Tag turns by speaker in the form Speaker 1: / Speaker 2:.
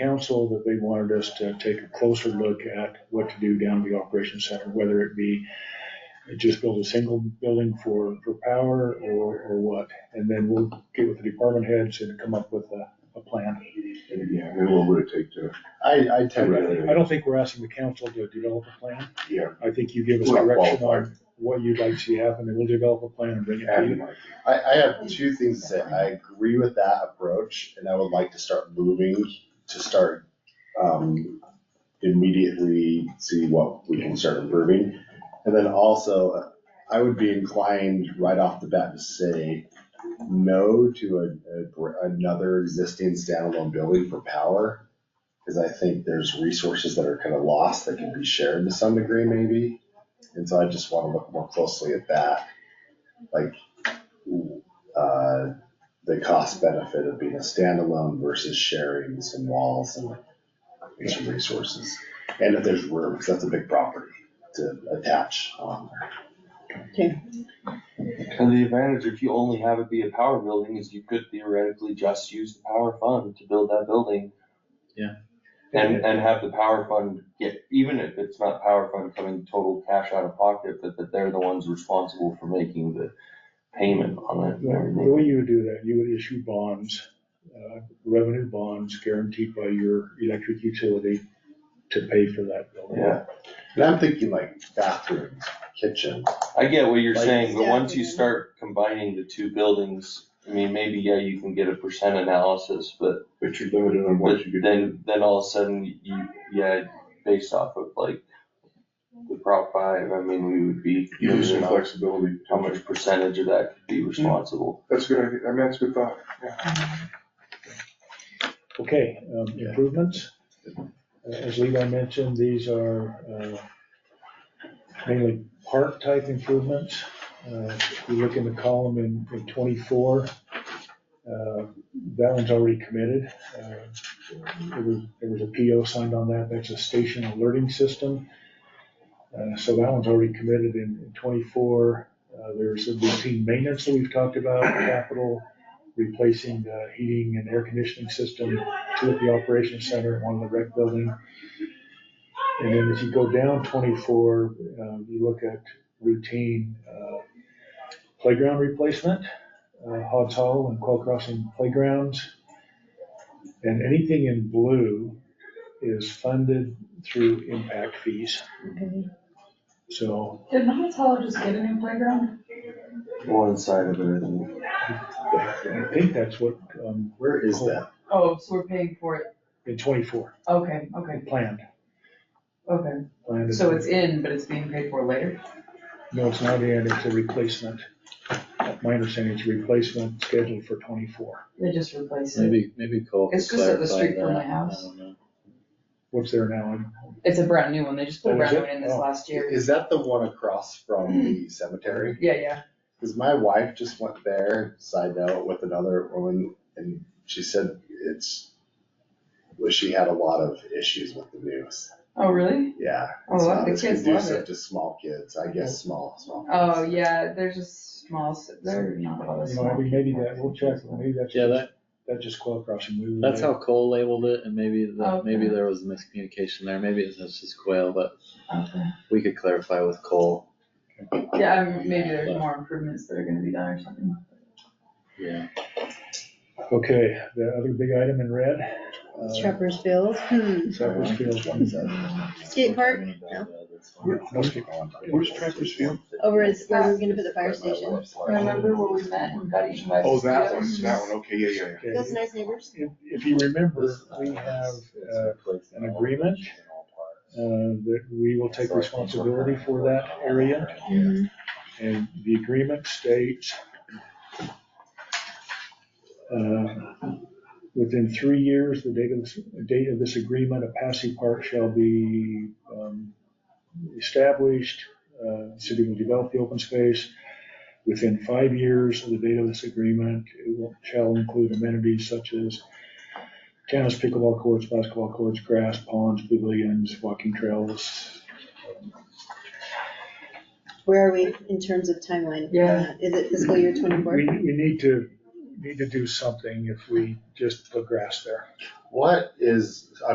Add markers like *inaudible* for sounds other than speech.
Speaker 1: council that they wanted us to take a closer look at what to do down at the operations center, whether it be just build a single building for, for power or, or what. And then we'll get with the department heads and come up with a, a plan.
Speaker 2: Yeah, and then what would it take to?
Speaker 3: I, I tend to,
Speaker 1: I don't think we're asking the council to develop a plan.
Speaker 2: Yeah.
Speaker 1: I think you give us
Speaker 2: We're not
Speaker 1: direction on
Speaker 2: qualified.
Speaker 1: what you'd like to see happen, and we'll develop a plan and bring it to
Speaker 2: add
Speaker 1: you.
Speaker 2: like-
Speaker 3: I, I have two things to say. I agree with that approach and I would like to start moving to start, um, immediately see what we can start improving. And then also, I would be inclined right off the bat to say no to a- a, gr- another existing standalone building for power. Cause I think there's resources that are kind of lost that can be shared to some degree maybe. And so I just wanna look more closely at that. Like, uh, the cost benefit of being a standalone versus sharing some walls and some resources. And if there's room, because that's a big property to attach on there.
Speaker 4: And the advantage, if you only have it be a power building, is you could theoretically just use the power fund to build that building.
Speaker 5: Yeah.
Speaker 4: And, and have the power fund get, even if it's not power fund coming total cash out of pocket, but that they're the ones responsible for making the payment on it and
Speaker 1: The way
Speaker 4: everything.
Speaker 1: you would do that, you would issue bonds, uh, revenue bonds guaranteed by your electric utility to pay for that building.
Speaker 4: Yeah,
Speaker 3: And I'm thinking like bathrooms, kitchen,
Speaker 4: I get what you're
Speaker 3: Like-
Speaker 4: saying, but
Speaker 6: Yeah.
Speaker 4: once you start combining the two buildings, I mean, maybe, yeah, you can get a percent analysis, but
Speaker 2: But you're limited on
Speaker 4: But
Speaker 2: what you could.
Speaker 4: then, then all of a sudden, you, yeah, based off of like the Prop five, I mean, we would be.
Speaker 2: You lose some
Speaker 4: losing out
Speaker 2: flexibility.
Speaker 4: How much percentage of that could be responsible?
Speaker 2: That's a good idea. I mean, that's a good thought.
Speaker 1: Okay, um, improvements. Uh, As Levi mentioned, these are uh, mainly park-type improvements. Uh, If you look in the column in in 24, uh, that one's already committed. Uh, There was- there was a PO signed on that, that's a station alerting system. Uh, So that one's already committed in in 24. Uh, There's the routine maintenance that we've talked about, capital, replacing the heating and air conditioning system, two at the operations center, one in the rec building. And then if you go down twenty-four, um, you look at routine, uh, playground replacement, uh, Hobbs Hall and Quail Crossing playgrounds. And anything in blue is funded through impact fees. So
Speaker 7: Did Mount Hollow just get a new playground?
Speaker 4: One side of it, I think.
Speaker 1: I think that's what, um,
Speaker 3: where is that?
Speaker 7: Oh, so we're paying for it,
Speaker 1: in twenty-four,
Speaker 7: okay, okay,
Speaker 1: planned,
Speaker 7: okay,
Speaker 1: planned. in
Speaker 7: so it's in, but it's being paid for later?
Speaker 1: No, it's not in, it's a replacement. My understanding is replacement scheduled for twenty-four.
Speaker 7: They just replaced it,
Speaker 5: Maybe, maybe Cole could
Speaker 7: It's just up the
Speaker 5: clarify
Speaker 7: street from
Speaker 5: that.
Speaker 7: my house.
Speaker 5: I don't know.
Speaker 1: What's there now? And
Speaker 7: it's a brand new one, they just put a
Speaker 1: Oh, is
Speaker 7: brand new
Speaker 1: it?
Speaker 7: one in this
Speaker 1: Oh.
Speaker 7: last year,
Speaker 3: Is that the one across
Speaker 7: *clears throat*
Speaker 3: from the cemetery?
Speaker 7: yeah, yeah,
Speaker 3: Cause my wife just went there, side note, with another woman and she said it's, well, she had a lot of issues with the news.
Speaker 7: oh, really?
Speaker 3: Yeah.
Speaker 7: Oh,
Speaker 3: it's
Speaker 7: well,
Speaker 3: not
Speaker 7: the
Speaker 3: as
Speaker 7: kids love
Speaker 3: conducive
Speaker 7: it.
Speaker 3: To small kids, I guess, small, small.
Speaker 7: Oh,
Speaker 3: kids.
Speaker 7: yeah, there's a small, s- they're not all this
Speaker 1: You know,
Speaker 7: small.
Speaker 1: maybe that, we'll check, maybe that's,
Speaker 5: Yeah, that,
Speaker 1: that's just Quail Crossing. We would-
Speaker 5: that's how Cole labeled it, and maybe, the-
Speaker 7: Okay.
Speaker 5: maybe there was a miscommunication there, maybe it's just quail, but
Speaker 7: Okay.
Speaker 5: we could clarify with Cole.
Speaker 7: Yeah, I mean, maybe there's more improvements that are gonna be done or something.
Speaker 5: Yeah.
Speaker 1: Okay, the other big item in red. uh,
Speaker 6: Trevor's Bills, hmm,
Speaker 1: Cypress Field.
Speaker 3: One seven.
Speaker 6: skate park
Speaker 1: No, skate-
Speaker 2: Where's Trapper's Field?
Speaker 6: over is where we we're gonna put the fire station.
Speaker 7: Remember where we met and got eaten by.
Speaker 2: Oh, that one,
Speaker 7: mosquitoes?
Speaker 2: that one. Okay, yeah, yeah, yeah.
Speaker 6: Those nice neighbors.
Speaker 1: If if you remember, we have uh, an agreement uh, that we will take responsibility for that area. And the agreement states, uh, within three years, the date of, this- date of this agreement, a Passy Park shall be um, established. Uh, City will develop the open space. Within five years of the date of this agreement, it will- shall include amenities such as tennis, pickleball courts, basketball courts, grass, ponds, pavilions, walking trails,
Speaker 6: Where are we in terms of timeline?
Speaker 7: Yeah.
Speaker 6: Is it fiscal year twenty-four?
Speaker 1: We, we need to need to do something if we just put grass there.
Speaker 3: What is,